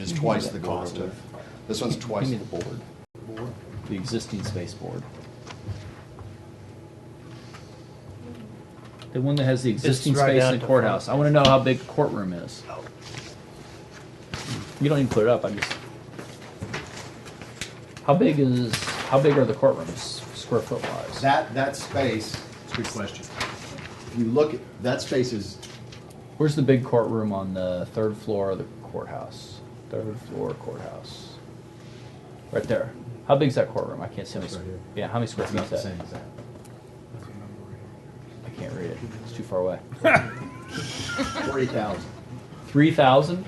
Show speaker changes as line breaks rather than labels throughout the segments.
it's twice the cost of, this one's twice the
Maybe the
board.
board, the existing space board. The one that has the existing
right
space
down
in the
to
courthouse. I wanna know how big the courtroom is. You don't need to put it up, I just. How big is, how big are the courtrooms, square foot wise?
That, that space, it's a good question. If you look, at that space is,
Where's the big courtroom on the third floor of the courthouse? Third floor courthouse. Right there. How big's that courtroom? I can't see. How many,
It's right here.
yeah, how many square
it's
feet
not
is
the
that?
same as that.
I can't read it. It's too far away.
Forty thousand.
Three thousand.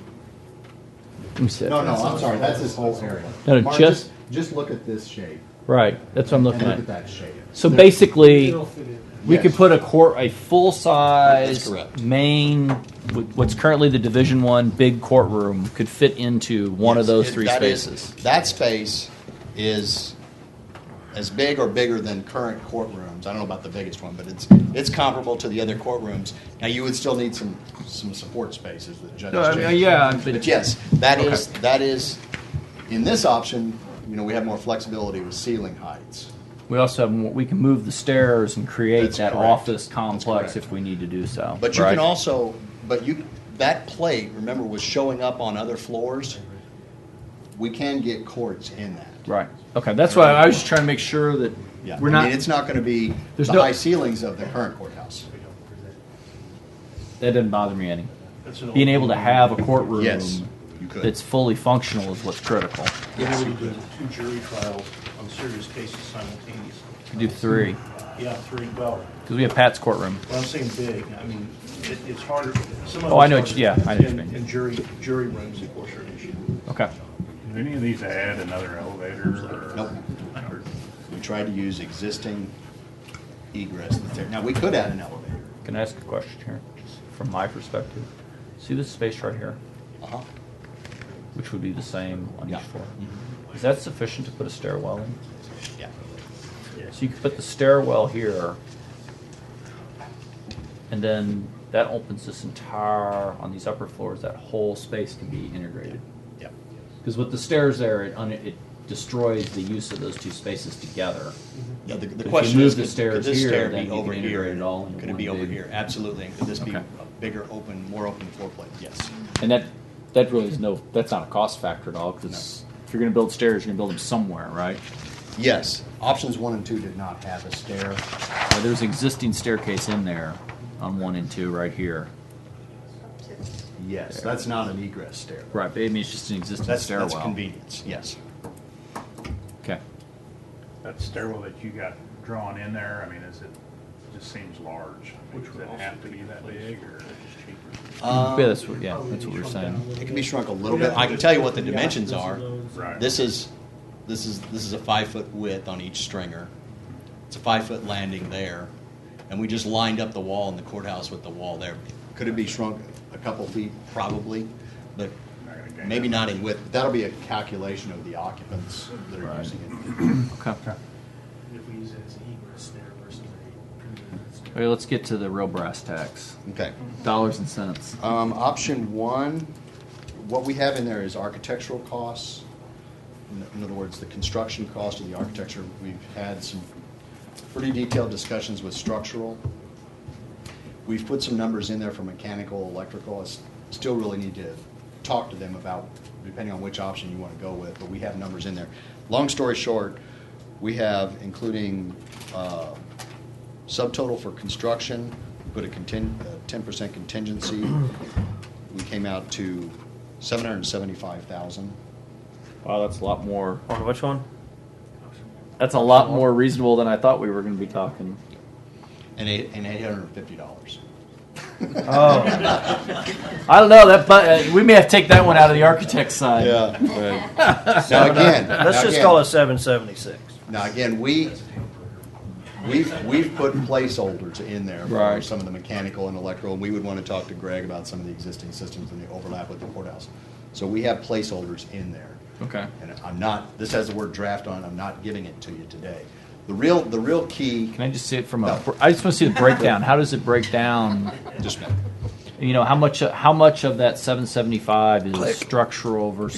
Let me see.
No, no, I'm sorry, that's this whole area.
No, no,
Mark,
just-
Just look at this shape,
Right. That's what
and
I'm looking
look at
at.
that shape.
So
There-
basically,
It'll fit in.
we
Yes.
could put a court, a full size
That's correct.
main, wh- what's currently the Division One big courtroom, could fit into one of
Yes,
those
it-
three
that is-
spaces.
That space is as big or bigger than current courtrooms. I don't know about the biggest one, but it's, it's comparable to the other courtrooms. Now, you would still need some, some support spaces that judges.
No, I mean,
change.
yeah, but-
But yes, that is, that is, in this option, you know, we have more flexibility with ceiling heights.
We also have more, we can move the stairs and create
That's
that
correct.
office
That's
complex
correct.
if we need to do so.
But you can
right?
also, but you, that plate, remember, was showing up on other floors. We can get courts in that.
Right. Okay. That's why I was just trying to make sure that
Yeah,
we're
I
not.
mean, it's not going to be
There's
the
no-
high ceilings of the current courthouse.
that doesn't bother me any.
That's an
Being
old-
able to have a courtroom
Yes, you could.
that's fully functional is what's critical.
Yeah, we do two jury trials on serious cases simultaneously.
We do three
Yeah, three, well,
because we have Pat's courtroom.
when I'm saying big, I mean, it, it's harder, some of
Oh, I know
it's
what
harder
you- yeah, I know what you
in-
mean.
In jury, jury rooms, of course, are an issue.
Okay.
Did any of these add another elevator? or-
Nope. We tried to use existing egress that's there. Now, we could add an elevator.
Can I ask a question here, just from my perspective? See this space right here,
Uh-huh.
which would be the same on
Yeah.
each floor. Is that sufficient to put a stairwell in?
Yeah.
So you could put the stairwell here, and then that opens this entire on these upper floors. That whole space can be integrated.
Yeah.
Because with the stairs there, it, un- it destroys the use of those two spaces together.
Yeah, the, the
If you
question
move
is,
the
could could
stairs
this
here,
stair be
then you can
over here?
integrate it all into
Could it
one
be over
big-
here? Absolutely. And Could this be
Okay.
a bigger, open, more open floor plate? Yes.
And that that really is no that's not a cost factor at all. Because if you're going to build stairs, you're going to build them somewhere, right?
Yes. Options one and two did not have a stair.
Uh, there's an existing staircase in there on one and two right here.
Yes, that's not an egress stair.
Right, but I mean it's just an existing
That's,
stairwell.
that's convenience, yes.
Okay.
That stairwell that you got drawn in there, I mean, is it, just seems large. I mean,
Which
Does
would
it
also
have to
be
be that
placed
big
where
or?
it's cheaper.
Um,
yeah, that's what yeah, that's what
Probably
we're
shrunk down a
saying.
little
It can be shrunk a little bit. I can tell you what the dimensions are.
Right.
This is, this is, this is a five foot width on each stringer. It's a five foot landing there, and we just lined up the wall in the courthouse with the wall there. Could it be shrunk a couple feet? Probably, but
Not gonna gain
maybe
that
not in width. That'll be a calculation of the occupants that are
Right.
using it.
Okay.
if we use it as an egress stair versus a pre-egress stair.
Okay, let's get to the real brass tacks.
Okay.
Dollars and cents.
Um, option one, what we have in there is architectural costs. In- In other words, the construction cost of the architecture. We've had some pretty detailed discussions with structural. We've put some numbers in there for mechanical, electrical. I s- still really need to talk to them about, depending on which option you want to go with, but we have numbers in there. Long story short, we have, including uh, subtotal for construction, put a contin- a 10% contingency. We came out to 775,000.
Wow, that's a lot more
On which one?
That's a lot more reasonable than I thought we were going to be talking.
and eight and eight hundred and fifty dollars.
Oh, I don't know that, but uh, we may have to take that one out of the architect's side.
now again,
Let's
now
just
again-
call it seven seventy-six.
Now again, we we've we've put placeholders in there for
Right.
some of the mechanical and electrical, and we would want to talk to Greg about some of the existing systems and the overlap with the courthouse. So we have placeholders in there.
Okay.
And I'm not. This has the word draft on. it, I'm not giving it to you today. The real the real key.
Can I just see it from a? I
No.
just want to see the breakdown. How does it break down?
just a minute.
You know, how much? How much of that seven seventy five is structural versus